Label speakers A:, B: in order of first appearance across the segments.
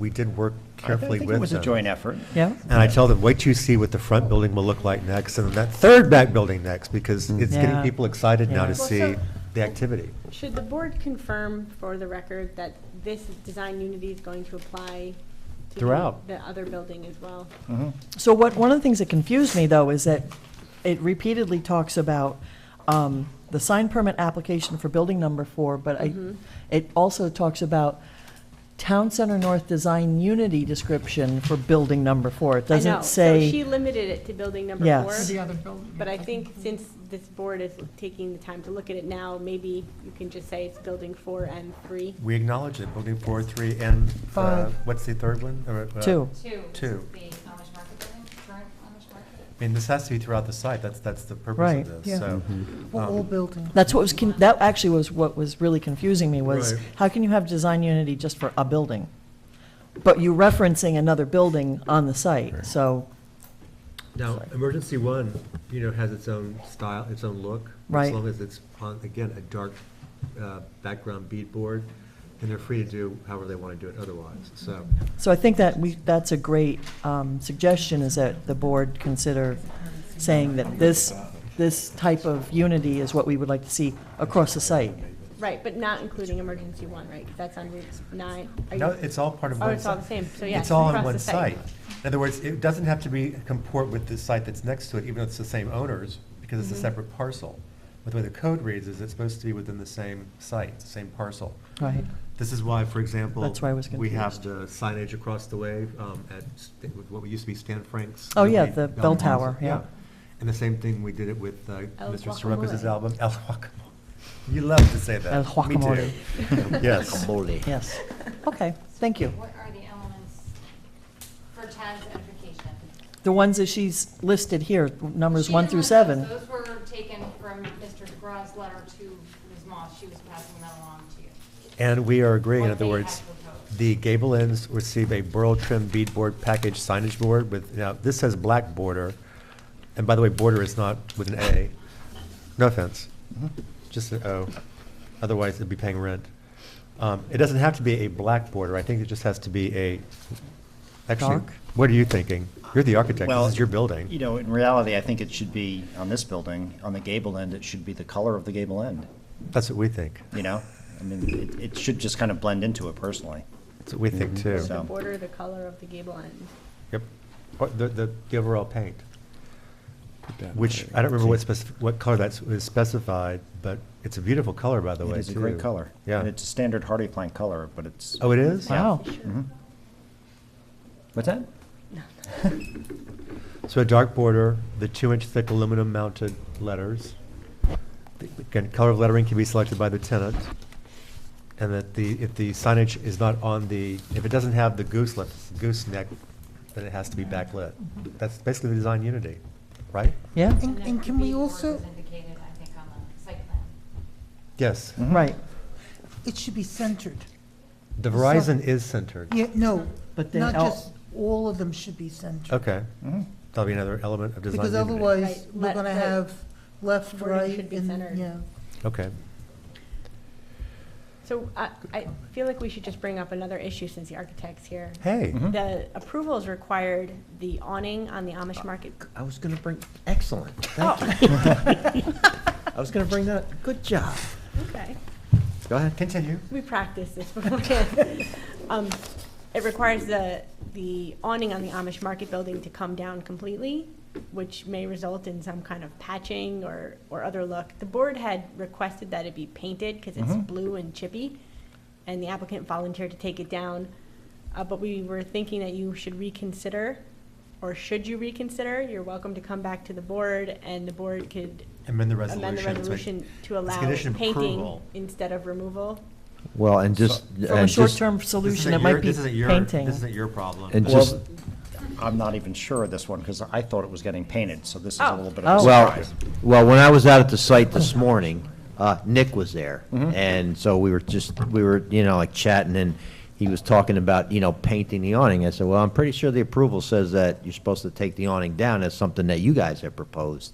A: We did work
B: I
A: carefully
B: think
A: with
B: it was a
A: them.
B: joint effort.
C: Yeah,
A: And I tell them, wait till you see what the front building will look like next, and then that third back building next, because it's getting
C: Yeah.
A: people excited now
C: Yeah.
A: to
D: Well,
A: see
D: so-
A: the activity.
D: Should the board confirm for the record that this design unity is going to apply to the-
A: Throughout.
D: the other building as well?
C: so what, one of the things that confused me, though, is that it repeatedly talks about um, the sign permit application for building number four, but I,
D: Mm-hmm.
C: it also talks about Town Center North Design Unity description for building number four. It
D: I know.
C: doesn't
D: So she
C: say,
D: limited it to building number
C: Yes.
D: four.
C: For the
E: other building.
D: But I think since this board is taking the time to look at it now, maybe you can just say it's building four and three.
A: We acknowledge it, building four, three, and, uh,
C: Five.
A: what's the third one? Or, uh,
C: Two.
F: Two.
A: Two.
F: The Amish Market Building, current Amish Market.
A: I mean, this has to be throughout the site, that's, that's the
C: Right.
A: purpose of
E: Yeah.
A: this, so.
E: All
A: um,
E: building.
C: that's what was, con- that actually was what was really confusing me, was
A: Right.
C: how can you have design unity just for a building? But you referencing another building on the site, so,
A: Now, emergency one, you know, has its own style, its own look. As
C: Right.
A: long as it's on, again, a dark uh, background beadboard, and they're free to do however they want to do it otherwise, so.
C: so I think that we, that's a great um, suggestion, is that the board consider saying that this, this type of unity is what we would like to see across the site.
D: Right, but not including emergency one, right? 'Cause that's on routes nine. Are
A: No,
D: you-
A: it's all part of
D: Oh,
A: one site.
D: it's all the same, so yes.
A: It's all on
D: across
A: one
D: the
A: site. In other words, it doesn't have to be comport with the site that's next to it, even though it's the same owners, because it's
D: Mm-hmm.
A: a separate parcel. But the way the code reads is it's supposed to be within the same site, same parcel.
C: Right.
A: This is why, for example.
C: That's why I was
A: We have the signage across the way um, at st- with what used to be Stan Frank's.
C: Oh, yeah,
A: lovely
C: the
A: album
C: bell
A: concert,
C: tower, yeah.
A: And the same thing, we did it with uh,
D: El
A: Mr. Soroka's
D: Guacamole.
A: album, El Guacamole. You love to say that.
C: El
A: Me
C: Guacamole.
A: too. Yes.
C: Yes. Okay, thank you.
F: What are the elements for Tad's edification?
C: The ones that she's listed here, numbers
F: She
C: one
F: didn't
C: through
F: list
C: seven.
F: those. Those were taken from Mr. DeGraw's letter to Ms. Moss. She was passing that along to you.
A: And we are agreeing, in
F: What
A: other
F: they
A: words,
F: had proposed.
A: the gable ends receive a burl trim beadboard package signage board with, now, this says black border. And by the way, border is not with an A. No offense, just an O. Otherwise, it'd be paying rent. Um, It doesn't have to be a black border. I think it just has to be a, actually,
C: Dark?
A: what are you thinking? You're the architect.
B: Well,
A: This is your
B: You
A: building.
B: know, in reality, I think it should be, on this building, on the gable end, it should be the color of the gable end,
A: That's what we think.
B: you know? I mean, it, it should just kind of blend into it personally.
A: That's what we think,
D: site.
A: too.
D: The
B: So-
D: border, the color of the gable end.
A: Yep. Or The, the, the overall paint, which, I don't remember what specif, what color that's was specified, but it's a beautiful color, by the way,
B: It
A: too.
B: is a great color.
A: Yeah.
B: And it's a standard hardy plank color, but it's, Mm-hmm.
A: Oh, it is?
C: Wow.
B: what's that?
A: So a dark border, the two-inch thick aluminum mounted letters. The- Again, color of lettering can be selected by the tenant. And that the, if the signage is not on the, if it doesn't have the goose lip, gooseneck, then it has to be backlit. That's basically the design unity, right?
C: Yeah,
E: And-
F: that
E: and can we
F: beadboard
E: also-
F: was indicated, I think, on the site plan.
A: Yes.
F: Mm-hmm.
C: right.
E: It should be centered.
A: The Verizon is centered.
E: Yeah, no,
C: But then
E: not
C: el-
E: just, all of them should be centered.
A: Okay.
B: Mm-hmm.
A: That'll be another element of design
E: Because
A: unity.
E: otherwise,
D: Right,
E: we're
D: let-
E: gonna
D: the
E: have left,
D: wording
E: right,
D: should be centered.
E: and, yeah.
A: Okay.
D: So I, I feel like we should just bring up another issue since the architect's here.
A: Hey,
G: Mm-hmm. Hmm?
D: The approval is required, the awning on the Amish market.
G: I was gonna bring, excellent,
D: Oh,
G: Uh, oh, thank you. I was gonna bring that, good job.
D: Oh, okay.
G: Go ahead.
A: continue.
D: We practiced this beforehand. Um, It requires the, the awning on the Amish market building to come down completely, which may result in some kind of patching or, or other look. The board had requested that it be painted because it's blue and chippy, and the applicant volunteered to take it down. Uh, But we were thinking that you should reconsider, or should you reconsider? You're welcome to come back to the board, and the board could
A: Amend the resolution.
D: amend the
A: so it-
D: resolution to
A: it's a
D: allow
A: condition of
D: painting
A: approval.
D: instead of removal.
G: Well, and just,
C: From a
G: and just,
C: short-term
A: This
C: solution,
A: isn't
C: it might
A: your-
C: be
A: this isn't your-
C: painting.
A: This isn't your problem.
G: and just,
B: Mm-hmm. Well, I'm not even sure of this one, because I thought it was getting painted, so this is a
D: Oh.
B: little bit of a
C: Oh.
G: well,
B: surprise.
G: well, when I was out at the site this morning, uh, Nick was there.
A: Mm-hmm.
G: And so we were just, we were, you know, like chatting and he was talking about, you know, painting the awning. I said, well, I'm pretty sure the approval says that you're supposed to take the awning down. That's something that you guys have proposed.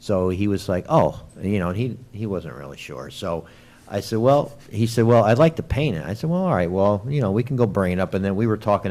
G: So he was like, oh, you know, and he, he wasn't really sure. So I said, well, he said, well, I'd like to paint it. I said, well, all right, well, you know, we can go bring it up. And then we were talking